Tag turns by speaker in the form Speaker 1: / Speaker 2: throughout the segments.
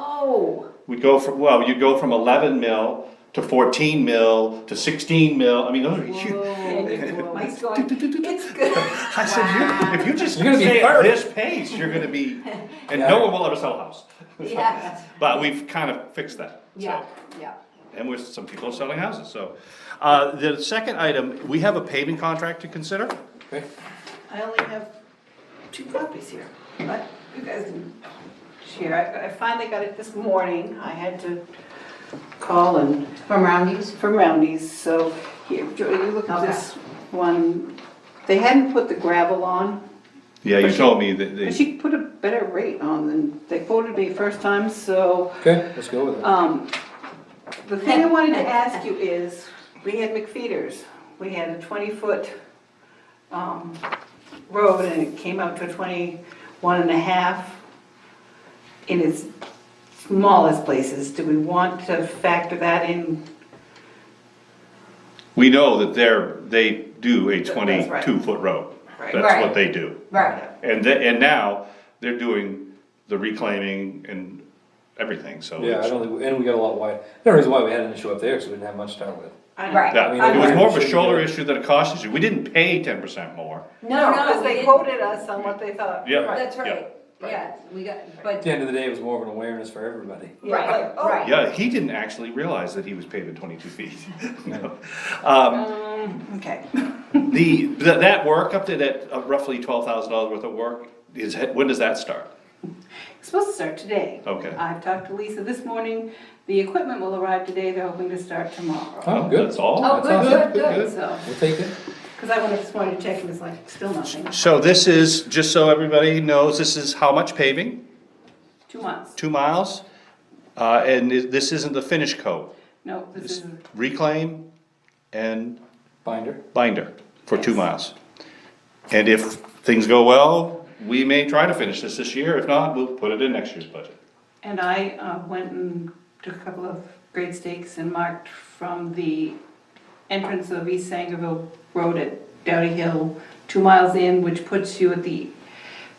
Speaker 1: Oh,
Speaker 2: We go from, well, you go from eleven mil to fourteen mil to sixteen mil, I mean, those are
Speaker 1: whoa,
Speaker 2: huge.
Speaker 1: Mike's going, it's good.
Speaker 2: I said, you, if you just
Speaker 3: You're gonna be
Speaker 2: stay at
Speaker 3: first.
Speaker 2: this pace, you're gonna be, and no one will ever sell a house.
Speaker 1: Yeah,
Speaker 2: But we've kind of fixed that,
Speaker 1: yeah,
Speaker 2: so,
Speaker 1: yeah.
Speaker 2: and we're, some people are selling houses, so. Uh, the second item, we have a paving contract to consider.
Speaker 3: Okay.
Speaker 4: I only have two copies here, but you guys can share. I- I finally got it this morning. I had to call and,
Speaker 1: From Roundy's?
Speaker 4: from Roundy's, so here, Joy, you look at this one. They hadn't put the gravel on,
Speaker 2: Yeah, you told me that
Speaker 4: but
Speaker 2: they,
Speaker 4: she put a better rate on than they quoted me first time, so.
Speaker 3: Okay, let's go with it.
Speaker 4: Um, the thing I wanted to ask you is, we had McFeeters, we had a twenty-foot, um, road and it came out to twenty-one and a half in its smallest places, do we want to factor that in?
Speaker 2: we know that they're, they do a
Speaker 4: That's right.
Speaker 2: twenty-two foot road.
Speaker 4: Right.
Speaker 2: That's what
Speaker 1: Right.
Speaker 2: they do.
Speaker 1: Right,
Speaker 2: And the, and now, they're doing the reclaiming and everything, so.
Speaker 3: Yeah, I
Speaker 2: it's-
Speaker 3: don't think, and we got a lot wide, the reason why we had an issue up there, because we didn't have much to start with.
Speaker 4: I-
Speaker 1: Right.
Speaker 2: Yeah,
Speaker 1: I
Speaker 2: it was
Speaker 1: agree.
Speaker 2: more of a
Speaker 3: Shouldn't
Speaker 2: shoulder
Speaker 3: do it.
Speaker 2: issue than a cost issue, we didn't pay ten percent more.
Speaker 1: no, no.
Speaker 4: Because
Speaker 1: we
Speaker 4: they
Speaker 1: didn't.
Speaker 4: quoted us on what they thought.
Speaker 2: Yeah.
Speaker 1: That's right,
Speaker 2: yeah,
Speaker 1: yeah, we got,
Speaker 3: At
Speaker 1: but,
Speaker 3: the end of the day, it was more of an awareness for everybody.
Speaker 4: Yeah,
Speaker 1: Right,
Speaker 4: like, oh,
Speaker 1: right.
Speaker 2: Yeah, he didn't actually realize that he was paving twenty-two feet. No. Um,
Speaker 4: Okay,
Speaker 2: the, that, that work up to that uh, roughly twelve thousand dollars worth of work is, when does that start?
Speaker 4: It's supposed to start today.
Speaker 2: Okay.
Speaker 4: I've talked to Lisa this morning, the equipment will arrive today, they're hoping to start tomorrow,
Speaker 3: Oh, good.
Speaker 2: That's all?
Speaker 1: oh,
Speaker 3: That's
Speaker 1: good, good,
Speaker 4: so.
Speaker 3: We'll take it.
Speaker 4: Because I went up this morning to check and it's like, still nothing,
Speaker 2: So this is, just so everybody knows, this is how much paving,
Speaker 4: two months.
Speaker 2: two miles, uh, and it- this isn't the finish coat.
Speaker 4: No, this is,
Speaker 2: Reclaim and
Speaker 3: Binder.
Speaker 2: binder for two
Speaker 4: Yes.
Speaker 2: miles. And if things go well, we may try to finish this this year, if not, we'll put it in next year's budget.
Speaker 4: and I uh, went and took a couple of grade stakes and marked from the entrance of East Sangerville Road at Dowdy Hill, two miles in, which puts you at the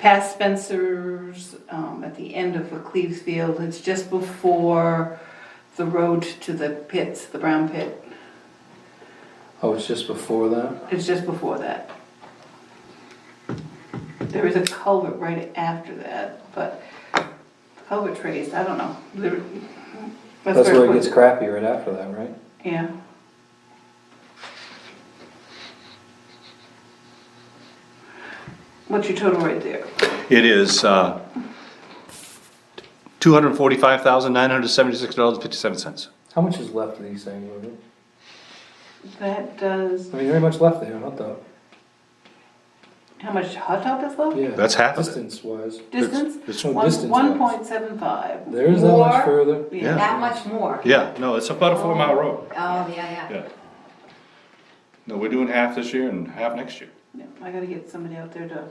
Speaker 4: past Spencer's, um, at the end of the Cleves Field. It's just before the road to the pits, the brown pit.
Speaker 3: Oh, it's just before that?
Speaker 4: It's just before that. There is a culvert right after that, but culvert raised, I don't know. There-
Speaker 3: That's
Speaker 4: where
Speaker 3: where it gets crappy right after that, right?
Speaker 4: Yeah. What's your total right there?
Speaker 2: It is, uh, two hundred and forty-five thousand, nine hundred and seventy-six dollars and fifty-seven cents.
Speaker 3: How much is left of these things? Lou?
Speaker 4: That does,
Speaker 3: I mean, there ain't much left there, not that.
Speaker 4: how much hot top is left?
Speaker 3: Yeah.
Speaker 2: That's half of it.
Speaker 3: Distance wise.
Speaker 4: Distance?
Speaker 2: It's-
Speaker 3: No,
Speaker 4: One-
Speaker 3: distance wise.
Speaker 4: 1.75.
Speaker 3: There is that
Speaker 1: More.
Speaker 3: much further.
Speaker 2: Yeah.
Speaker 1: that much more.
Speaker 2: Yeah, no, it's about a four-mile road,
Speaker 1: Oh, yeah, yeah.
Speaker 2: yeah. No, we're doing half this year and half next year.
Speaker 4: Yeah, I gotta get somebody out there to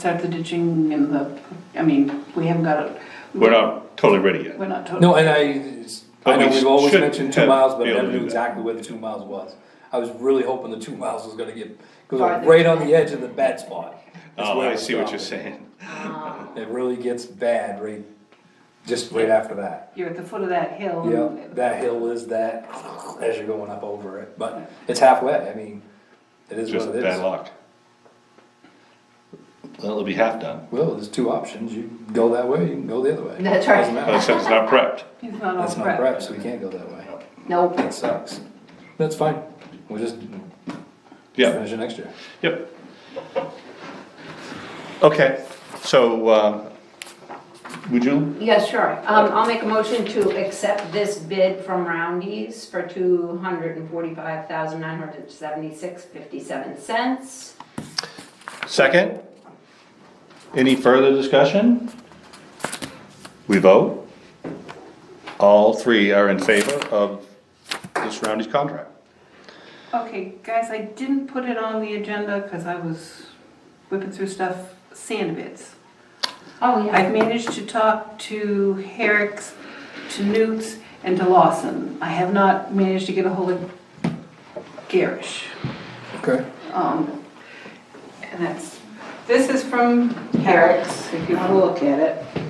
Speaker 4: start the ditching and the, I mean, we haven't got it.
Speaker 2: We're not totally ready yet.
Speaker 4: We're not totally,
Speaker 3: No, and I, it's-
Speaker 2: But
Speaker 3: I know
Speaker 2: we
Speaker 3: we've always
Speaker 2: should
Speaker 3: mentioned two
Speaker 2: have
Speaker 3: miles, but
Speaker 2: be
Speaker 3: I
Speaker 2: able to
Speaker 3: never
Speaker 2: do
Speaker 3: knew
Speaker 2: that.
Speaker 3: exactly where the two miles was. I was really hoping the two miles was gonna get, because
Speaker 4: Farther.
Speaker 3: right on the edge of the bad spot. is
Speaker 2: Oh,
Speaker 3: where
Speaker 2: I
Speaker 3: it
Speaker 2: see what you're
Speaker 3: stopped.
Speaker 2: saying.
Speaker 1: Ah,
Speaker 3: It really gets bad right, just right after that.
Speaker 4: you're at the foot of that hill.
Speaker 3: Yeah,
Speaker 4: and-
Speaker 3: that hill is that, as you're going up over it, but it's halfway, I mean, it is
Speaker 2: Just
Speaker 3: what it
Speaker 2: bad
Speaker 3: is.
Speaker 2: luck. Well, it'll be half done.
Speaker 3: Well, there's two options, you can go that way, you can go the other way.
Speaker 1: That's right.
Speaker 3: Doesn't matter.
Speaker 2: Like I said, it's not prepped.
Speaker 4: He's not all
Speaker 3: That's not
Speaker 4: prepped.
Speaker 3: prep, so we can't go that way,
Speaker 1: Nope.
Speaker 3: that sucks. That's fine, we'll just
Speaker 2: Yeah.
Speaker 3: finish it next year.
Speaker 2: Yep. Okay, so, um, would you,
Speaker 1: Yeah, sure. Um, I'll make a motion to accept this bid from Roundy's for two hundred and forty-five thousand nine hundred seventy-six fifty-seven cents.
Speaker 2: second? Any further discussion? We vote? All three are in favor of this Roundy's contract.
Speaker 4: Okay, guys, I didn't put it on the agenda because I was whipping through stuff, sand bits.
Speaker 1: Oh,
Speaker 4: I've managed to talk to Herrick's, to Newt's, and to Lawson. I have not managed to get a hold of Garish.
Speaker 3: Okay.
Speaker 4: Um, and that's, this is from Herrick's, if you wanna look at it.